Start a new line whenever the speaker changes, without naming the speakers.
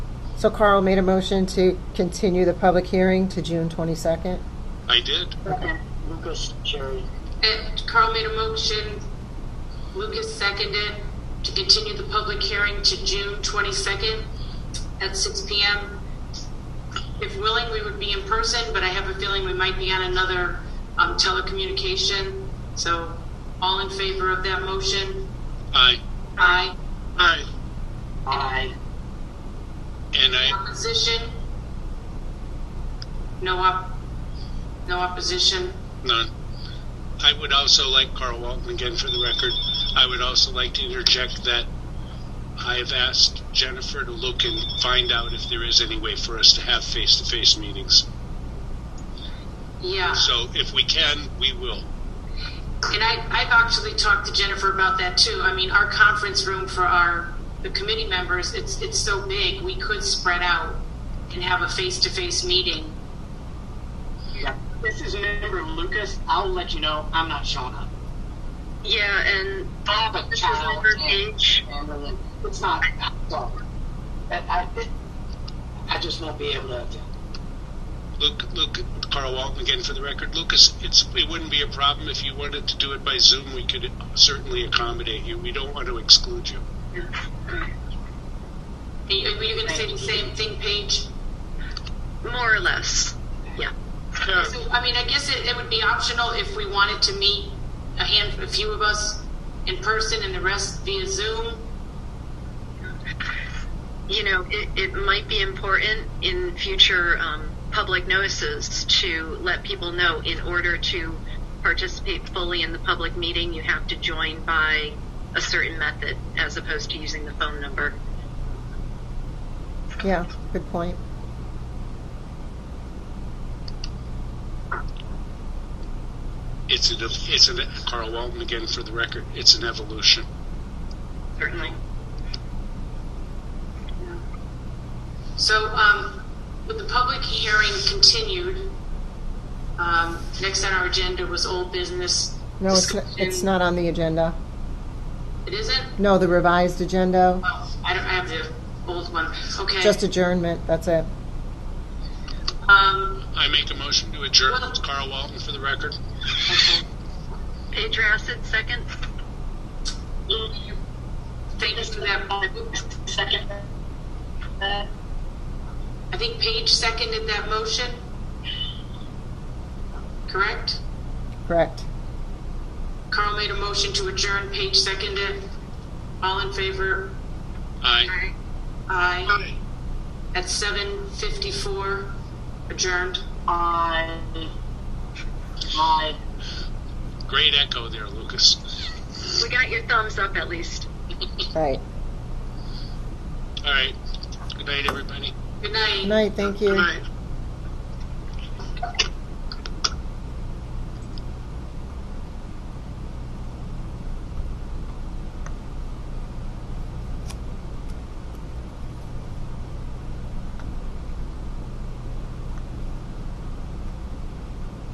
So Carl made a motion to continue the public hearing to June 22nd.
I did.
Second, Lucas, Jerry.
And Carl made a motion, Lucas seconded, to continue the public hearing to June 22nd at 6 PM. If willing, we would be in person, but I have a feeling we might be on another um, telecommunication. So all in favor of that motion?
Aye.
Aye.
Aye.
Aye.
And I,
Opposition? No op, no opposition?
none. I would also like, Carl Walton, again for the record, I would also like to interject that I have asked Jennifer to look and find out if there is any way for us to have face to face meetings.
Yeah.
So if we can, we will.
And I, I've actually talked to Jennifer about that too. I mean, our conference room for our, the committee members, it's, it's so big, we could spread out and have a face-to-face meeting.
Yeah. This is member Lucas. I'll let you know. I'm not showing up.
Yeah, and
I have a
This is
child.
member
and-
Page.
and It's not, sorry. But I, it- I just won't be able to attend.
Luke, Luke, Carl Walton again for the record. Lucas, it's it wouldn't be a problem if you wanted to do it by Zoom. We could certainly accommodate you. We don't want to exclude you.
Are you, were you gonna say the same thing, Paige?
more or less. Yeah.
So, I mean, I guess it, it would be optional if we wanted to meet a hand, a few of us in person and the rest via Zoom.
You know, it, it might be important in future um, public notices to let people know in order to participate fully in the public meeting, you have to join by a certain method as opposed to using the phone number.
Yeah, good point.
It's an it's an Carl Walton again for the record. It's an evolution.
Certainly.
So, um, with the public hearing continued, um, next on our agenda was old business.
No, it's, not- it's
discussion.
not on the agenda.
It isn't?
No, the revised agenda,
Oh, I don't I have the old one. Okay.
just adjournment, that's it.
um,
I make a motion to adjourn. It's Carl Walton for the record.
okay.
Page Acid, second.
Thank you for that.
Second. Uh,
I think Paige seconded that motion. Correct?
Correct.
Carl made a motion to adjourn. Paige seconded. All in favor?
Aye.
Aye. At 7:54, adjourned.
I, I,
Great echo there, Lucas.
We got your thumbs up at least.
Right.
All right. Good night, everybody.
Good night.
Good night, thank you.
Good night.